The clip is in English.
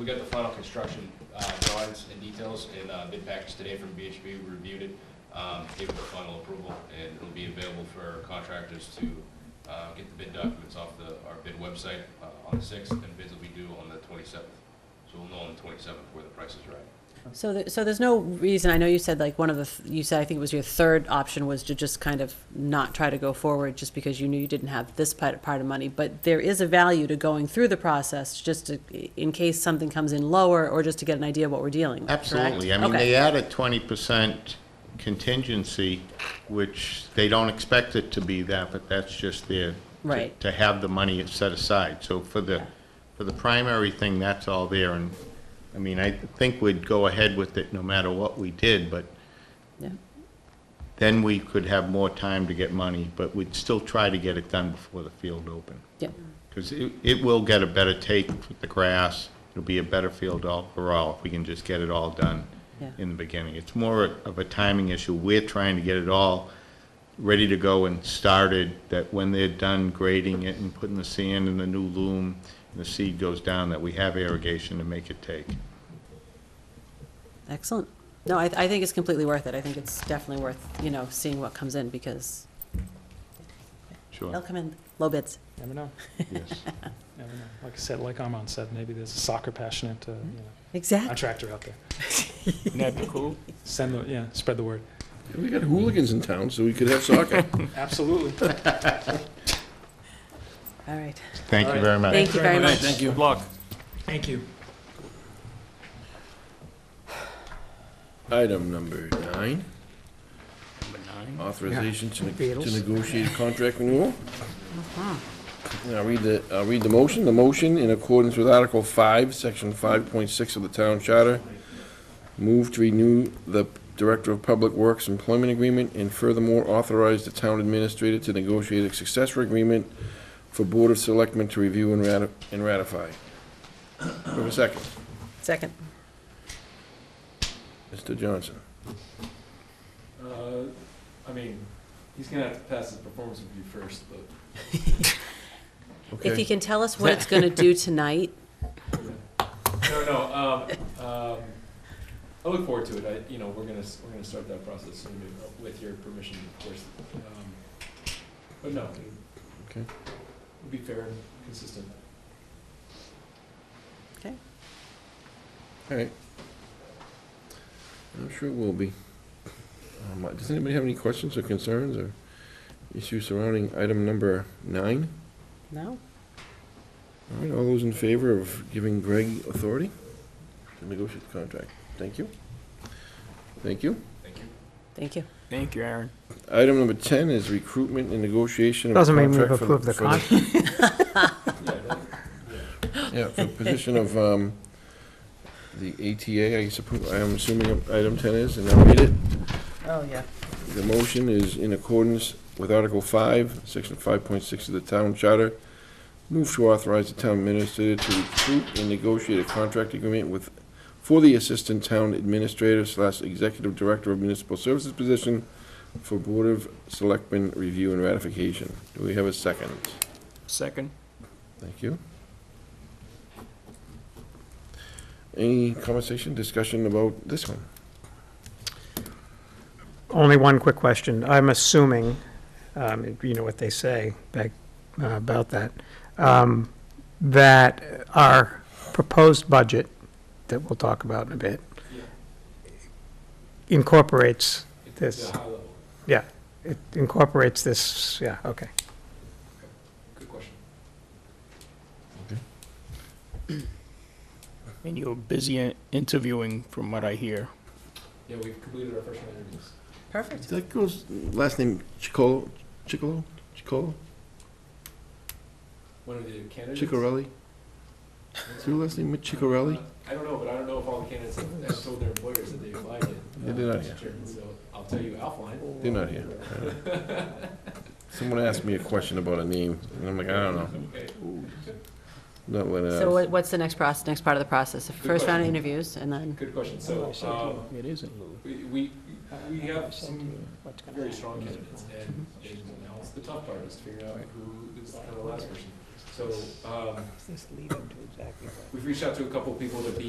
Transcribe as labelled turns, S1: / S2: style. S1: We got the final construction uh, drawings and details in uh, bid package today from BHB, We reviewed it, um, gave it the final approval, and it'll be available for contractors to uh, get the bid documents off the, our bid website uh, on the 6th, and bids will be due on the 27th. So we'll know on the 27th where the price is right.
S2: So, there- so there's no reason, I know you said like one of the, th- you said, I think it was your third option was to just kind of not try to go forward just because you knew you didn't have this part, part of money, but there is a value to going through the process just to, in case something comes in lower or just to get an idea of what we're dealing with, correct?
S3: Absolutely. I mean,
S2: Okay.
S3: they add a twenty percent contingency, which they don't expect it to be that, but that's just there. to-
S2: Right.
S3: To have the money set aside. So for the, for the primary thing, that's all there. And, I mean, I think we'd go ahead with it no matter what we did, but
S2: Yeah.
S3: then we could have more time to get money, but we'd still try to get it done before the field open.
S2: Yeah,
S3: Because it, it will get a better take with the grass, it'll be a better field overall if we can just get it all done
S2: Yeah.
S3: in the beginning. It's more of a timing issue. We're trying to get it all ready to go and started, that when they're done grading it and putting the sand in the new loom, and the seed goes down, that we have irrigation to make it take.
S2: excellent. No, I, I think it's completely worth it. I think it's definitely worth, you know, seeing what comes in because they'll
S3: Sure,
S2: come in low bids.
S4: Never know,
S3: yes.
S4: never know. Like I said, like Armand said, maybe there's a soccer passionate, uh, you know,
S2: Exactly.
S4: contractor out there.
S5: That'd be cool.
S4: Send the, yeah, spread the word.
S6: We got hooligans in town, so we could have soccer.
S4: Absolutely.
S2: All right.
S3: Thank you very much.
S2: Thank you very much.
S5: Thank you. Good luck.
S4: Thank you.
S6: Item number nine,
S5: Number nine.
S6: authorization to
S4: Beatles.
S6: to negotiate a contract renewal. And I'll read the, I'll read the motion. The motion, in accordance with Article 5, Section 5.6 of the Town Charter, move to renew the Director of Public Works employment agreement and furthermore authorize the town administrator to negotiate a successor agreement for Board of Selectmen to review and rati- and ratify. Do I have a second?
S2: Second.
S6: Mr. Johnson.
S7: Uh, I mean, he's gonna have to pass his performance review first, but
S2: If
S6: Okay.
S2: you can tell us what it's going to do tonight,
S7: no, no. Um, um, I look forward to it. I, you know, we're gonna s- we're gonna start that process soon, uh, with your permission, of course. Um, but no, it,
S6: Okay.
S7: It'll be fair and consistent.
S6: All right. I'm sure it will be. Um, Does anybody have any questions or concerns or issues surrounding item number nine?
S2: no?
S6: All right, all those in favor of giving Greg authority to negotiate the contract? Thank you. Thank you.
S1: Thank you.
S2: Thank you.
S5: Thank you, Aaron.
S6: Item number 10 is recruitment and negotiation of a
S8: Doesn't mean we've
S6: contract for the-
S8: approved the
S6: for the-
S8: contract.
S7: Yeah, that,
S6: Yeah, for the position of um, the ATA, I suppose, I'm assuming item 10 is, and I'll read it.
S8: Oh, yeah.
S6: The motion is in accordance with Article 5, Section 5.6 of the Town Charter. Move to authorize the town administrator to recruit and negotiate a contract agreement with, for the Assistant Town Administrator slash Executive Director of Municipal Services position for Board of Selectmen review and ratification. Do we have a second?
S5: Second.
S6: Thank you. Any conversation, discussion about this one?
S8: Only one quick question. I'm assuming, um, you know what they say back, uh, about that, um, that our proposed budget that we'll talk about in a bit incorporates
S7: it,
S8: This.
S7: the high level.
S8: yeah, it incorporates this, yeah, okay.
S7: Good question.
S5: And you're busy in- interviewing, from what I hear.
S7: Yeah, we've completed our first round of interviews.
S2: Perfect.
S6: That goes, last name Chicolo, Chicolo, Chicolo,
S7: One of the candidates.
S6: Chicorelli? Is your last name Chicorelli?
S7: Uh, I don't know, but I don't know if all the candidates have, have told their employers that they applied yet.
S6: They did not
S7: Mr.
S6: yet.
S7: Chairman, So I'll tell you offline.
S6: They're not here. Someone asked me a question about a name, and I'm like, I don't know.
S7: Okay.
S6: Not what uh, I
S2: So
S6: asked.
S2: what- what's the next process, next part of the process? The First round of interviews and then,
S7: Good question. So, um,
S5: It isn't Lou.
S7: we, we, we have some very strong candidates and, and now it's the tough part is to figure out who is kind of the last person. So, um,
S9: Just leave it to exactly what.
S7: we've reached out to a couple people to be